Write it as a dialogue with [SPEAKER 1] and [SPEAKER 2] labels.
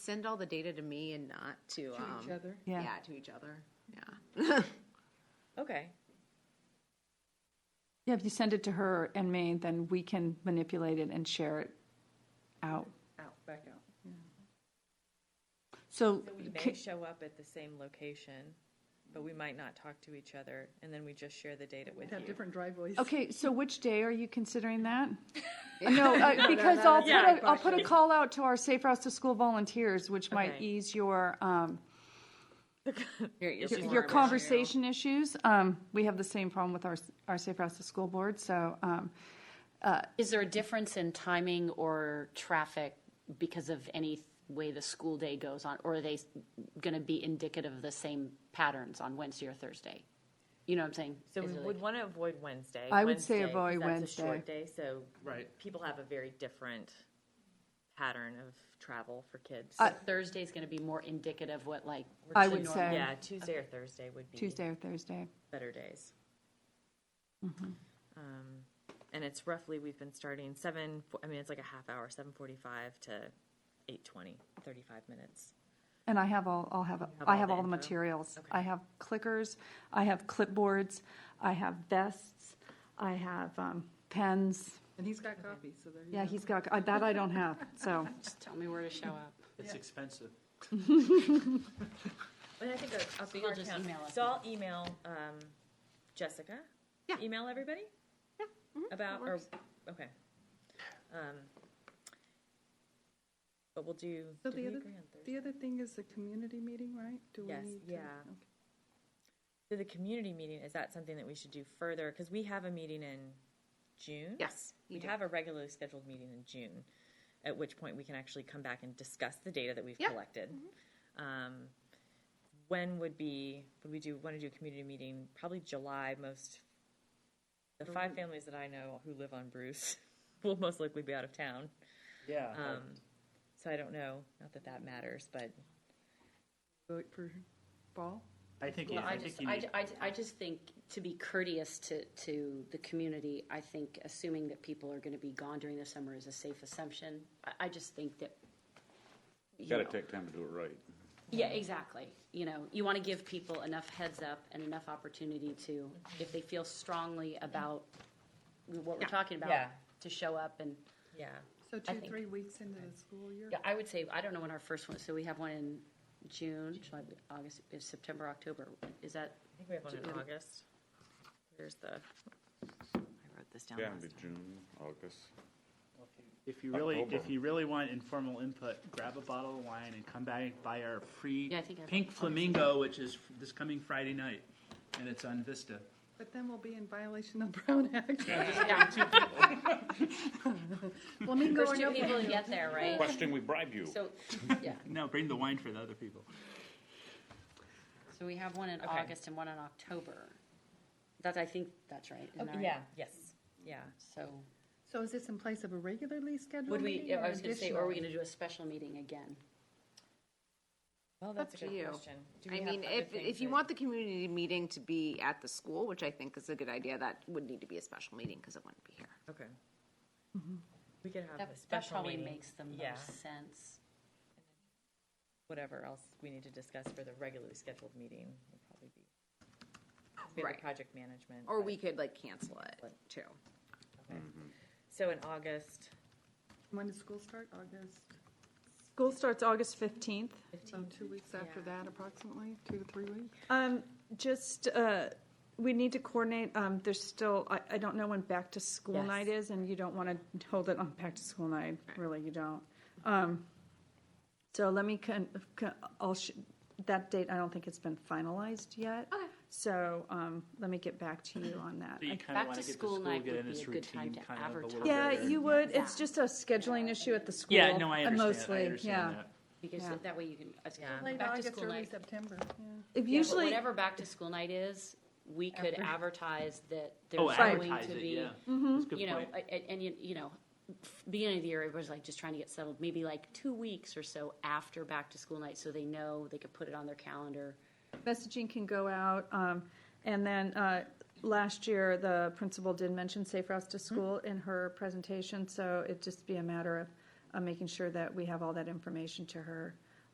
[SPEAKER 1] send all the data to me and not to,
[SPEAKER 2] To
[SPEAKER 1] um,
[SPEAKER 2] each other?
[SPEAKER 3] Yeah.
[SPEAKER 1] Yeah, to each other, yeah.
[SPEAKER 2] Okay,
[SPEAKER 3] Yeah, if you send it to her and me, then we can manipulate it and share it out.
[SPEAKER 2] out, back out.
[SPEAKER 3] So,
[SPEAKER 2] So we
[SPEAKER 3] ca-
[SPEAKER 2] may show up at the same location, but we might not talk to each other, and then we just share the data with
[SPEAKER 4] Have
[SPEAKER 2] you.
[SPEAKER 4] different driveways.
[SPEAKER 3] okay, so which day are you considering that? No, uh, because I'll put
[SPEAKER 2] Yeah.
[SPEAKER 3] a, I'll put a call out to our Safe Routes to School volunteers, which might
[SPEAKER 2] Okay.
[SPEAKER 3] ease your, um,
[SPEAKER 1] Your
[SPEAKER 3] your-
[SPEAKER 1] issue.
[SPEAKER 3] your conversation issues. Um, we have the same problem with our, s- our Safe Routes to School Board, so, um,
[SPEAKER 5] Is there a difference in timing or traffic because of any way the school day goes on? Or are they going to be indicative of the same patterns on Wednesday or Thursday? You know what I'm saying?
[SPEAKER 6] So we
[SPEAKER 5] Is it
[SPEAKER 6] would
[SPEAKER 5] like-
[SPEAKER 6] want to avoid Wednesday.
[SPEAKER 3] I would say
[SPEAKER 6] Wednesday,
[SPEAKER 3] avoid
[SPEAKER 6] 'cause That's a short
[SPEAKER 3] Wednesday.
[SPEAKER 6] day, so
[SPEAKER 4] Right.
[SPEAKER 6] people have a very different pattern of travel for kids.
[SPEAKER 5] Thursday's going to be more indicative what like,
[SPEAKER 3] I would say
[SPEAKER 6] Yeah, Tuesday or Thursday would be
[SPEAKER 3] Tuesday or Thursday.
[SPEAKER 6] better days.
[SPEAKER 3] Mm-hmm.
[SPEAKER 6] Um, And it's roughly, we've been starting seven, fo- I mean, it's like a half hour, seven forty-five to eight twenty, thirty-five minutes.
[SPEAKER 3] And I have all, I'll have,
[SPEAKER 6] have
[SPEAKER 3] I
[SPEAKER 6] all
[SPEAKER 3] have
[SPEAKER 6] the
[SPEAKER 3] all the
[SPEAKER 6] info?
[SPEAKER 3] materials.
[SPEAKER 6] Okay.
[SPEAKER 3] I have clickers, I have clipboards, I have vests, I have um, pens.
[SPEAKER 4] And he's got copies, so there you go.
[SPEAKER 3] Yeah, he's got, I- that I don't have, so.
[SPEAKER 5] just tell me where to show up.
[SPEAKER 7] It's expensive.
[SPEAKER 6] And I think a, a
[SPEAKER 5] you'll
[SPEAKER 6] car
[SPEAKER 5] just
[SPEAKER 6] count-
[SPEAKER 5] email us
[SPEAKER 6] So I'll email, um, Jessica?
[SPEAKER 1] Yeah.
[SPEAKER 6] Email everybody?
[SPEAKER 4] mm-hmm,
[SPEAKER 6] Yeah. About, or, okay. Um, But we'll do,
[SPEAKER 4] So
[SPEAKER 6] did
[SPEAKER 4] the
[SPEAKER 6] we
[SPEAKER 4] other-
[SPEAKER 6] agree on Thursday?
[SPEAKER 4] The other thing is the community meeting, right? Do we
[SPEAKER 6] Yes,
[SPEAKER 4] need to-
[SPEAKER 6] yeah.
[SPEAKER 4] okay.
[SPEAKER 6] So the community meeting, is that something that we should do further? Because we have a meeting in June?
[SPEAKER 1] Yes, we
[SPEAKER 6] We
[SPEAKER 1] do.
[SPEAKER 6] have a regularly scheduled meeting in June, at which point we can actually come back and discuss the data that we've
[SPEAKER 1] Yeah. Mm-hmm.
[SPEAKER 6] collected. Um, When would be, would we do, want to do a community meeting? Probably July, most, the five families that I know who live on Bruce will most likely be out of town.
[SPEAKER 7] Yeah.
[SPEAKER 1] Oh.
[SPEAKER 5] Uh,
[SPEAKER 6] Um, So I don't know, not that that matters, but
[SPEAKER 4] Vote for fall?
[SPEAKER 7] I think, you-
[SPEAKER 5] Well, I
[SPEAKER 7] I think
[SPEAKER 5] just,
[SPEAKER 7] you
[SPEAKER 5] I,
[SPEAKER 7] need,
[SPEAKER 5] I, I just think, to be courteous to, to the community, I think assuming that people are gonna be gone during the summer is a safe assumption. I, I just think that. you
[SPEAKER 8] Got to
[SPEAKER 5] know,
[SPEAKER 8] take time to do it right.
[SPEAKER 5] Yeah, exactly. You know, you wanna give people enough heads up and enough opportunity to, if they feel strongly about what we're talking about,
[SPEAKER 6] Yeah.
[SPEAKER 5] to show up and,
[SPEAKER 6] yeah.
[SPEAKER 4] So two,
[SPEAKER 5] think-
[SPEAKER 4] three weeks into the school year?
[SPEAKER 5] yeah, I would say, I don't know when our first one, so we have one in June, July, August, is September, October, is that?
[SPEAKER 6] I think we have one
[SPEAKER 5] Do-
[SPEAKER 6] in August. Here's the, I wrote this down
[SPEAKER 8] Yeah,
[SPEAKER 6] last
[SPEAKER 8] it'd be June, August.
[SPEAKER 7] if you really,
[SPEAKER 8] October.
[SPEAKER 7] if you really want informal input, grab a bottle of wine and come back by our free
[SPEAKER 5] Yeah, I think I-
[SPEAKER 7] Pink Flamingo, which is f- this coming Friday night, and it's on Vista.
[SPEAKER 4] But then we'll be in violation of Brown Act. Flamingo
[SPEAKER 5] First
[SPEAKER 4] or
[SPEAKER 5] two
[SPEAKER 4] no
[SPEAKER 5] people to get there, right?
[SPEAKER 8] Question, we bribe you.
[SPEAKER 5] So, yeah,
[SPEAKER 7] No, bring the wine for the other people.
[SPEAKER 5] so we have one in August and one in October. That, I think, that's right. isn't that
[SPEAKER 6] time.
[SPEAKER 5] right?
[SPEAKER 6] Yeah, yes, yeah.
[SPEAKER 5] So,
[SPEAKER 4] So is this in place of a regularly scheduled
[SPEAKER 5] would
[SPEAKER 4] meeting?
[SPEAKER 5] we, I
[SPEAKER 4] or
[SPEAKER 5] was gonna say, or are we
[SPEAKER 4] additional?
[SPEAKER 5] gonna do a special meeting again?
[SPEAKER 6] Well,
[SPEAKER 1] that's
[SPEAKER 6] that's
[SPEAKER 1] a
[SPEAKER 6] a
[SPEAKER 1] to good you.
[SPEAKER 6] good
[SPEAKER 1] question.
[SPEAKER 6] question.
[SPEAKER 1] I mean, if, if you want the community meeting to be at the school, which I think is a good idea, that would need to be a special meeting because it wouldn't be here.
[SPEAKER 6] Okay. We could have a
[SPEAKER 5] That, that
[SPEAKER 6] special
[SPEAKER 5] probably
[SPEAKER 6] meeting.
[SPEAKER 5] makes the
[SPEAKER 6] Yeah.
[SPEAKER 5] most sense.
[SPEAKER 6] Whatever else we need to discuss for the regularly scheduled meeting would probably be. We have
[SPEAKER 1] Right.
[SPEAKER 6] the project management.
[SPEAKER 1] Or
[SPEAKER 6] but-
[SPEAKER 1] we could like cancel it too.
[SPEAKER 6] okay. So in August,
[SPEAKER 4] When does school start? August?
[SPEAKER 2] School starts August fifteenth.
[SPEAKER 4] So two weeks after that approximately, two to three weeks?
[SPEAKER 2] Um, just, uh, we need to coordinate, um, there's still, I, I don't know when back to school
[SPEAKER 6] Yes.
[SPEAKER 2] night is, and you don't wanna hold it on back to school night, really, you don't. Um, so let me con, con, I'll, sh- that date, I don't think it's been finalized yet. Okay. So, um, let me get back to you on that.
[SPEAKER 7] So you
[SPEAKER 2] I-
[SPEAKER 7] kind
[SPEAKER 5] back
[SPEAKER 7] of
[SPEAKER 5] to
[SPEAKER 7] want to get the
[SPEAKER 5] school
[SPEAKER 7] school,
[SPEAKER 5] night
[SPEAKER 7] get
[SPEAKER 5] would
[SPEAKER 7] in
[SPEAKER 5] be
[SPEAKER 7] its
[SPEAKER 5] a good time
[SPEAKER 7] routine
[SPEAKER 5] to
[SPEAKER 7] kind of a little
[SPEAKER 5] advertise.
[SPEAKER 7] bit.
[SPEAKER 2] Yeah,
[SPEAKER 7] later.
[SPEAKER 2] you would, it's just a scheduling issue at the school.
[SPEAKER 7] Yeah, no, I
[SPEAKER 2] uh,
[SPEAKER 7] understand. I
[SPEAKER 2] Mostly,
[SPEAKER 7] understand
[SPEAKER 2] yeah.
[SPEAKER 7] that.
[SPEAKER 5] Because
[SPEAKER 2] Yeah.
[SPEAKER 5] that way you can, it's
[SPEAKER 6] Yeah.
[SPEAKER 4] Late
[SPEAKER 5] back to
[SPEAKER 4] August,
[SPEAKER 5] school
[SPEAKER 4] early
[SPEAKER 5] night.
[SPEAKER 4] September, yeah.
[SPEAKER 2] If
[SPEAKER 5] Yeah, but
[SPEAKER 2] usually,
[SPEAKER 5] Whatever back to school night is, we could advertise that there's
[SPEAKER 7] Oh,
[SPEAKER 5] going
[SPEAKER 7] advertise
[SPEAKER 5] to
[SPEAKER 7] it,
[SPEAKER 5] be.
[SPEAKER 7] yeah. That's a good
[SPEAKER 5] you know,
[SPEAKER 7] point.
[SPEAKER 5] a- a- and, you you know, f- beginning of the year, everybody's like just trying to get settled, maybe like two weeks or so after back to school night, so they know they could put it on their calendar.
[SPEAKER 2] messaging can go out. Um, and then uh, last year, the principal did mention Safe Routes to School in her presentation, so it'd just be a matter of uh, making sure that we have all that information to her